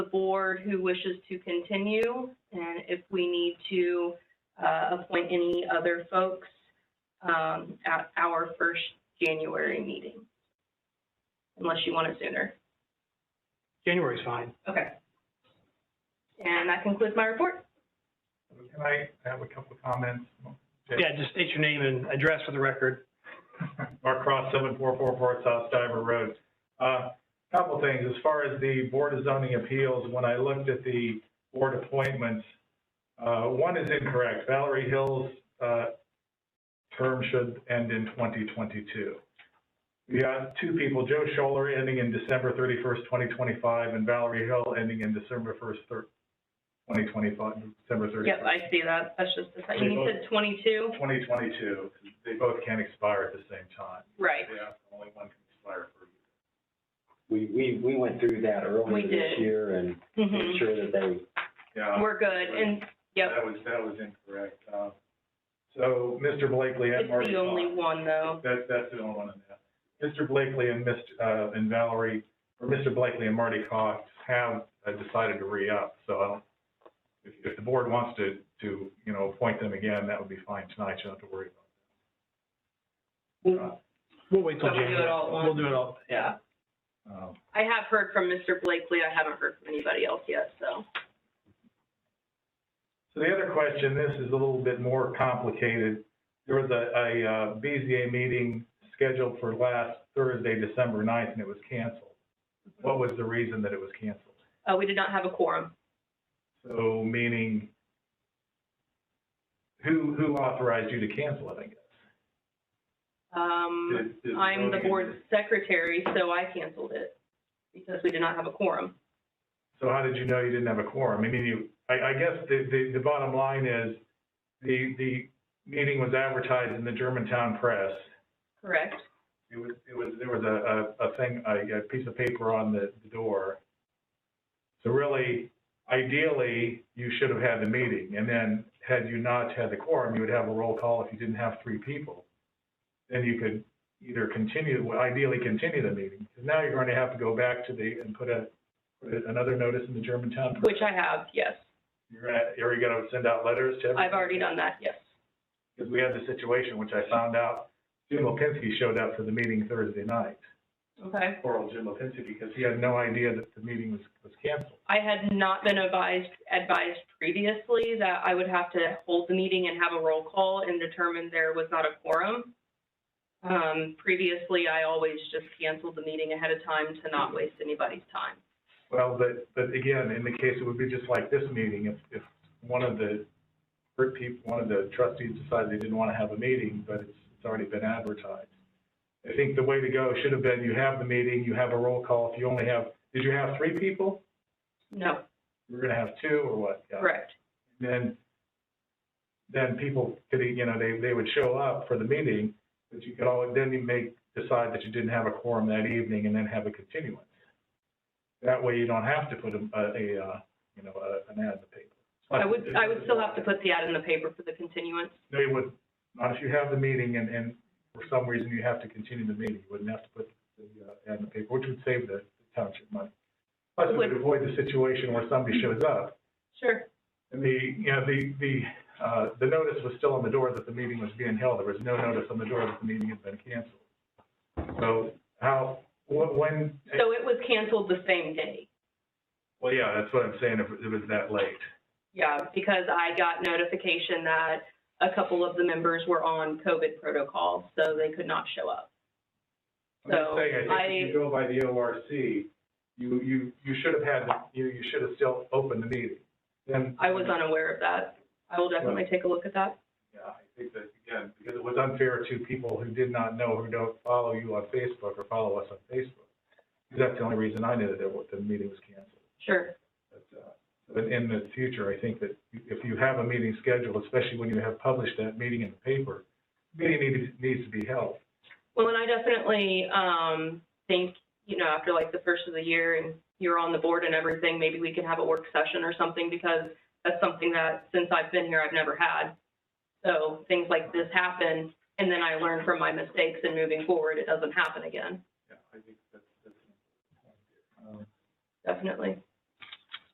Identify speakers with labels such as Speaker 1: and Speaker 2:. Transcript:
Speaker 1: board who wishes to continue, and if we need to, uh, appoint any other folks, um, at our first January meeting. Unless you want it sooner.
Speaker 2: January's fine.
Speaker 1: Okay. And that concludes my report.
Speaker 3: Can I have a couple of comments?
Speaker 2: Yeah, just state your name and address for the record.
Speaker 3: Mark Cross, seven four four four South Diver Road. Uh, Couple things, as far as the Board of Zoning Appeals, when I looked at the board appointments, uh, one is incorrect. Valerie Hill's, uh, term should end in twenty twenty-two. We got two people, Joe Scholler ending in December thirty-first, twenty twenty-five, and Valerie Hill ending in December first, twenty twenty-five, December thirty-first.
Speaker 1: Yep, I see that. That's just, the second. you said twenty-two?
Speaker 3: 2022, they both can't expire at the same time.
Speaker 1: Right.
Speaker 3: Yeah. Only one can expire for a
Speaker 4: We, we, we went through that
Speaker 1: We
Speaker 4: earlier
Speaker 1: did.
Speaker 4: this year and made
Speaker 1: Mhm.
Speaker 4: sure that uh, they,
Speaker 3: year. Yeah,
Speaker 1: We're good, and, yep,
Speaker 3: that was, that was incorrect. Uh, So Mr. Blakely and
Speaker 1: it's
Speaker 3: Marty.
Speaker 1: the only one though.
Speaker 3: That's, that's the only one in that. Mr. Blakely and Mr., uh, and Valerie, or Mr. Blakely and Marty Cox have uh, decided to re-up, so I don't, if, if the board wants to, to, you know, appoint them again, that would be fine tonight, you don't have to worry
Speaker 2: We'll we'll wait till
Speaker 1: So we'll do
Speaker 2: January.
Speaker 1: it all at once?
Speaker 2: We'll do it all, yeah.
Speaker 3: about it. Um,
Speaker 1: I have heard from Mr. Blakely. I haven't heard from anybody else yet, so.
Speaker 3: So the other question, this is a little bit more complicated. There was a, a uh, BZA meeting scheduled for last Thursday, December 9th, and it was canceled. What was the reason that it was canceled?
Speaker 1: Uh, we did not have a quorum.
Speaker 3: So meaning, who, who authorized you to cancel it, I guess?
Speaker 1: Um,
Speaker 3: Did- did
Speaker 1: I'm the
Speaker 3: voting-
Speaker 1: board secretary, so I canceled it because we did not have a quorum.
Speaker 3: So how did you know you didn't have a quorum? I mean, you, I, I guess the, the, the bottom line is, the, the meeting was advertised in the Germantown Press.
Speaker 1: Correct?
Speaker 3: It was, it was, there was a, a, a thing, a, a piece of paper on the, the door. So really, ideally, you should have had the meeting, and then had you not had the quorum, you would have a roll call if you didn't have three people. Then you could either continue, well, ideally continue the meeting, because now you're going to have to go back to the, and put a, put another notice in the Germantown. Press.
Speaker 1: Which I have, yes.
Speaker 3: You're gonna, are you gonna send out letters to everybody?
Speaker 1: I've already done that, yes.
Speaker 3: Because we had the situation, which I found out, Jim Lipinski showed up for the meeting Thursday night.
Speaker 1: Okay.
Speaker 3: Oral Jim Lipinski because he had no idea that the meeting was, was canceled.
Speaker 1: I had not been advised, advised previously that I would have to hold the meeting and have a roll call and determine there was not a quorum. Um, previously, I always just canceled the meeting ahead of time to not waste anybody's time.
Speaker 3: Well, but, but again, in the case, it would be just like this meeting, if, if one of the, per- peop- one of the trustees decided they didn't want to have a meeting, but it's, it's already been advertised. I think the way to go should have been, you have the meeting, you have a roll call, if you only have, did you have three people?
Speaker 1: No,
Speaker 3: You're gonna have two or what? Yeah.
Speaker 1: correct.
Speaker 3: then, then people could, you know, they, they would show up for the meeting, but you could all, then you make, decide that you didn't have a quorum that evening and then have a continuance. That way you don't have to put a, a, uh, you know, a- an ad in the paper.
Speaker 1: I would, I would still have to put the ad in the paper for the continuance.
Speaker 3: No, you wouldn't, not if you have the meeting and, and for some reason you have to continue the meeting, you wouldn't have to put the, uh, ad in the paper, which would save the township money. Plus, it would avoid the situation where somebody shows up
Speaker 1: Sure.
Speaker 3: And the, you know, the, the, uh, the notice was still on the door that the meeting was being held. There was no notice on the door that the meeting had been canceled. So how, wh- when,
Speaker 1: So it was canceled the same day.
Speaker 3: well, yeah, that's what I'm saying, if it was that late.
Speaker 1: Yeah, because I got notification that a couple of the members were on COVID protocol, so they could not show up.
Speaker 3: I'm just
Speaker 1: So,
Speaker 3: saying, I think if you go by the ORC, you, you, you should have had, the- you, you should have still opened the meeting. Then.
Speaker 1: I was unaware of that. I will definitely take a look at that.
Speaker 3: Yeah, I think that, again, because it was unfair to people who did not know, who don't follow you on Facebook or follow us on Facebook. That's the only reason I knew that there wa- the meeting was canceled.
Speaker 1: Sure.
Speaker 3: But, uh, But in the future, I think that if you have a meeting scheduled, especially when you have published that meeting in the paper, meeting needs, needs to be held.
Speaker 1: Well, and I definitely, um, think, you know, after like the first of the year and you're on the board and everything, maybe we can have a work session or something because that's something that since I've been here, I've never had. So things like this happen and then I learn from my mistakes and moving forward, it doesn't happen again.
Speaker 3: Yeah, I think that's, that's.
Speaker 1: Definitely.